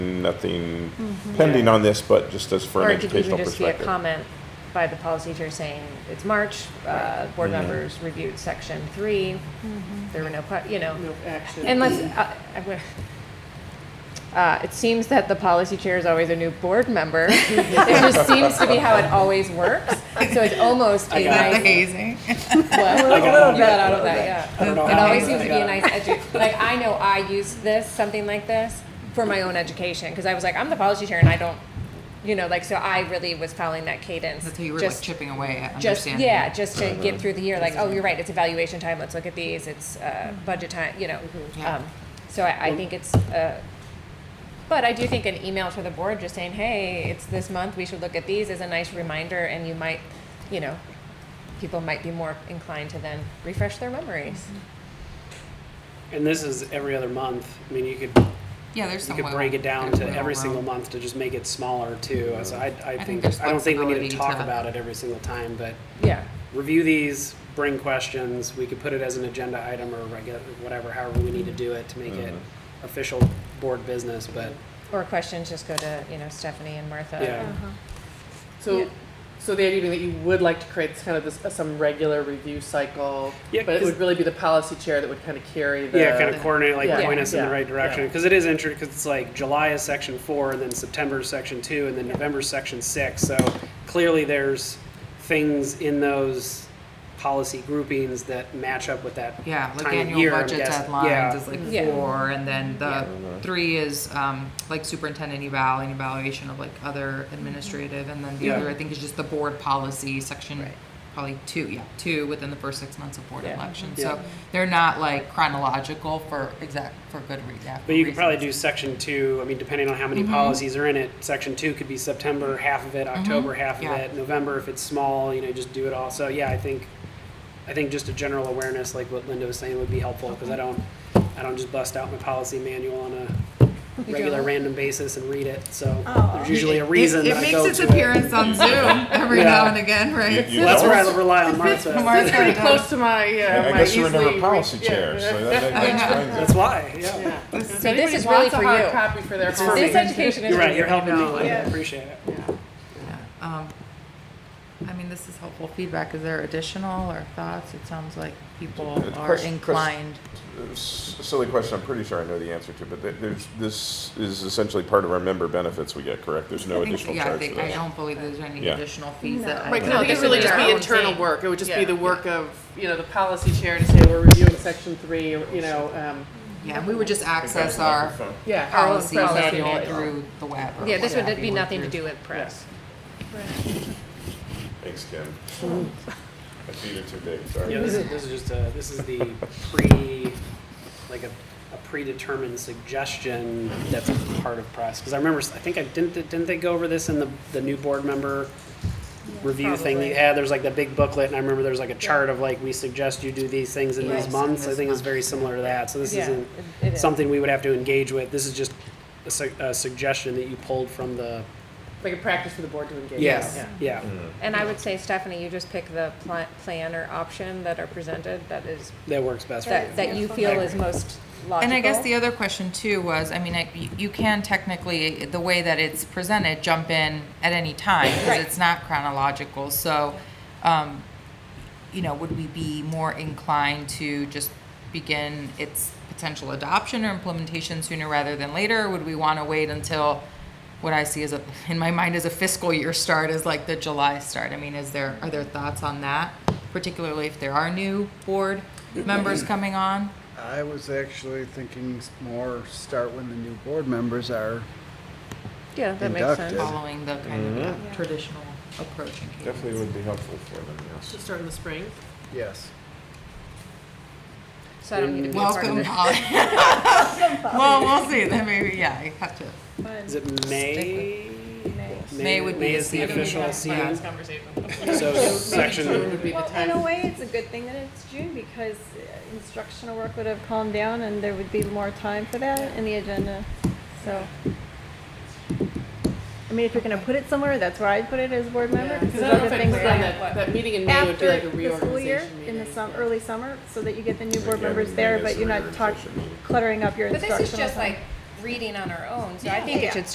nothing, nothing pending on this, but just as for Mm-hmm. Or an it could even educational just be a perspective. comment by the policy chair saying, it's March, uh, board members reviewed section three, there were no que, you know. No action. Unless, uh, I would- uh, it seems that the policy chair is always a new board member. It just seems to be how it always works, so it's almost a got The nice. hazing. Well, I got a little it. bit out of that, I don't know yeah. It how always I seems to be got a it. nice edu, like, I know I use this, something like this, for my own education, because I was like, I'm the policy chair and I don't, you know, like, so I really was following that cadence. That's how you were like just- chipping away at Just, understanding. yeah, just to get through the year, like, oh, you're right, it's evaluation time, let's look at these, it's, uh, budget time, you know. Mm-hmm. Yeah. Um, So I, I think it's, uh, but I do think an email to the board just saying, hey, it's this month, we should look at these, is a nice reminder, and you might, you know, people might be more inclined to then refresh their memories. And this is every other month. I mean, you could, Yeah, there's you some. could wiggle- break it down there's to wiggle every room. single month to just make it smaller too. So I, I think, there's I don't think we need flexibility to talk to- about it every single time, but Yeah. review these, bring questions. We could put it as an agenda item or regular, whatever, however we need to do it to make it official board business, but Or questions, just go to, you know, Stephanie and Martha. Uh, yeah. So, Yeah. so the idea being that you would like to create this kind of this, uh, some regular review cycle, Yeah, but it 'cause- would really be the policy chair that would kind of carry the. Yeah, kind of coordinate, like Yeah. point us in the Yeah. right direction, Yeah. because it is interesting, because it's like July is section four, and then September is section two, and then November is section six, so clearly there's things in those policy groupings that match up with that Yeah, like time of annual year, I'm budget guessing. deadlines Yeah, is like Yeah. four, and then Yeah. the three is um, like superintendent eval and evaluation of like other administrative, and then the Yeah. other, I think, is just the board policy section, probably two, yeah, two within the first six months of board Yeah. election. Mm-hmm. Yeah. So they're not like chronological for exact, for good reason. yeah, for but you could probably reasons. do section two, I mean, depending on how many Mm-hmm. policies are in it, section two could be September, half of it, October, half of Yeah. it, November, if it's small, you know, just do it all, so, yeah, I think, I think just a general awareness, like what Linda was saying, would be helpful, because I don't, I don't just bust out my policy manual on a regular don't? random basis and read it, so Oh. there's usually a It- reason It that I makes go its to it. appearance on Zoom every now Yeah. and again, right? You- you That's where I don't? rely on Martha. Martha Pretty does. close to my, yeah, I my guess easily. you were never re- policy yeah. chair, so that- that that explains it. That's why, yeah. Yeah. If this anybody is really wants a for hard you. Copy for their. for me. This policy- education is. You're right, you're helping me, No, Linda, I yeah. appreciate it. Um, I mean, this is helpful feedback. Is there additional or thoughts? It sounds like people Uh, are quest- quest- inclined. S- Silly question, I'm pretty sure I know the answer to, but th- there's, this is essentially part of our member benefits we get, correct? There's no I think- additional yeah, I charge for think- I this. don't believe there's any Yeah. additional fees that. Right, 'cause No, I think it this would really is just our be own internal thing. work. It would just Yeah. be the work of, you know, the policy chair to say, we're reviewing section three, or, you know, um, Yeah, and we would just access our yeah. Our own policy policy manual manual. through the web. or Yeah, this would whatever be you work nothing to through. do with press. Thanks, Kim. My feet are too big, sorry. Yeah, this is, this is just a, this is the pre, like a, a predetermined suggestion that's part of press. Because I remember, I think I, didn't, didn't they go over this in the, the new board member review thing that you had? There's like the big booklet, and I remember there's like a chart of like, we suggest you do these things in Yes, these in months. I this think it's month. very similar to that, so this Yeah, isn't it- it is. something we would have to engage with. This is just a su- a suggestion that you pulled from the, Like a practice for the board to engage. Yes. Yeah. yeah. And I would say, Stephanie, you just pick the pla- plan or option that are presented that is, That works best for that, you. that you feel is most logical. And I guess the other question too was, I mean, I- you- you can technically, the way that it's presented, jump in at any time because Right. it's not chronological. So, um, you know, would we be more inclined to just begin its potential adoption or implementation sooner rather than later? Would we want to wait until what I see as a, in my mind as a fiscal year start is like the July start? I mean, is there, are there thoughts on that? Particularly if there are new board Mm-hmm. members coming on? I was actually thinking s- more start when the new board members are. Yeah, that makes sense. Inductive. following the kind of uh, traditional approach. and cadence. Definitely would be helpful for them, yes. So start in the spring. Yes. So I don't need to be a part of Welcome, this. Polly. Well, we'll see, then maybe, yeah, you have to, Is it May? May would be May the is the season. official season. conversation. So June section, would be the Well, in a time. way, it's a good thing that it's June because uh, instructional work would have calmed down and there would be more time for that in the agenda, so. I mean, if you're gonna put it somewhere, that's where I'd put it as board member. Because I there's don't know if other I things put that- on that, that meeting in May would be After like a the school year, reorganization in the meeting. sum, early summer, so that you get the new board Yeah, members maybe there, it's but a you're not regular talk, session meeting. cluttering up your But instructional. this is just time. like reading on our own, so I think it should